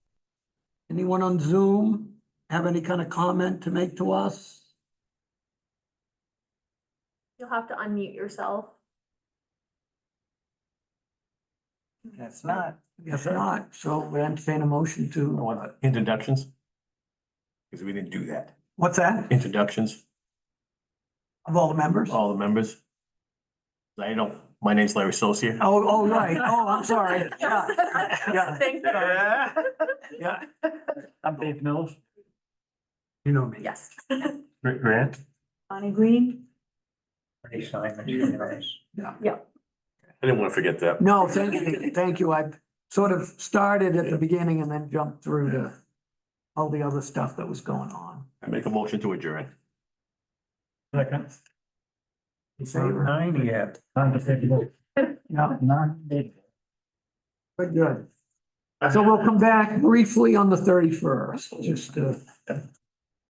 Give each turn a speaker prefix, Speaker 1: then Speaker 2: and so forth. Speaker 1: Anyone on Zoom have any kind of comment to make to us?
Speaker 2: You'll have to unmute yourself.
Speaker 3: That's not.
Speaker 1: If not, so we entertain a motion to,
Speaker 4: What, uh, introductions? Because we didn't do that.
Speaker 3: What's that?
Speaker 4: Introductions,
Speaker 3: Of all the members? Oh,
Speaker 4: all the members. I don't, my name's Larry Socia.
Speaker 3: oh, right. Oh, I'm sorry. Yeah, yeah,
Speaker 2: Thank you.
Speaker 3: yeah.
Speaker 5: I'm Dave Mills.
Speaker 3: You know me.
Speaker 2: Yes.
Speaker 4: Rick Grant.
Speaker 2: Bonnie Green?
Speaker 5: Pretty Simon, you know.
Speaker 4: I didn't want to forget that.
Speaker 1: no, thank you, thank you. I sort of started at the beginning and then jumped through to all the other stuff that was going on.
Speaker 4: I make a motion to adjourn.
Speaker 5: Second.
Speaker 1: In favor?
Speaker 5: uh, Nine yet. Not
Speaker 1: Yeah,
Speaker 5: big.
Speaker 1: but good. So we'll come back briefly on the thirty-first, just to